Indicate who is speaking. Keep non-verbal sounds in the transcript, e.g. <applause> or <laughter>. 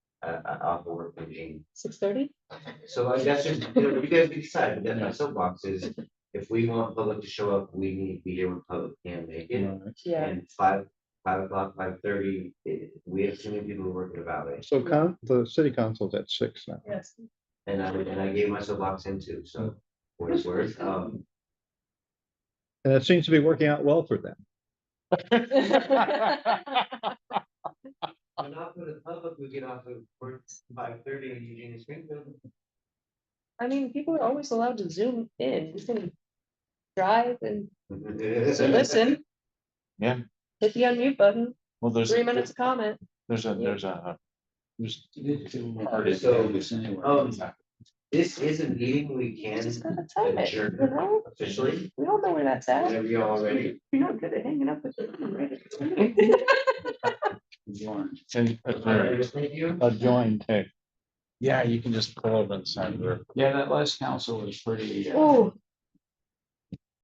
Speaker 1: uh, uh, off the work with Jean.
Speaker 2: six thirty?
Speaker 1: So like, that's just, you know, you guys can decide, but then my soapbox is, if we want public to show up, we need to be here when public can make it.
Speaker 2: Yeah,
Speaker 1: And five, five o'clock, five thirty, eh, we have too many people who work in the valley,
Speaker 3: So con, the city council's at six now.
Speaker 2: <laughs> yes,
Speaker 1: and I, and I gave myself locks in too, so. For what it's
Speaker 2: <laughs>
Speaker 1: worth, um,
Speaker 3: And it seems to be working out well for them.
Speaker 1: I'm not for the public, we get off of work five thirty in Eugene and Springfield.
Speaker 2: I mean, people are always allowed to zoom in, you can drive and listen.
Speaker 4: Yeah.
Speaker 2: Hit the unmute button,
Speaker 4: <laughs> Well, there's.
Speaker 2: three minutes of comment,
Speaker 4: There's a,
Speaker 2: Yeah.
Speaker 4: there's a. There's.
Speaker 1: Um, This is a meeting we can
Speaker 2: just gotta time it, you
Speaker 1: adjourn
Speaker 2: know,
Speaker 1: officially,
Speaker 2: we all know where that's at,
Speaker 1: whenever y'all are ready.
Speaker 2: you're not good at hanging up with them, right?
Speaker 4: And
Speaker 1: Alright,
Speaker 4: adjourned,
Speaker 1: thank you.
Speaker 4: adjoined too. Yeah, you can just pull over and sign. Yeah, that last council was pretty.
Speaker 2: <laughs> Oh,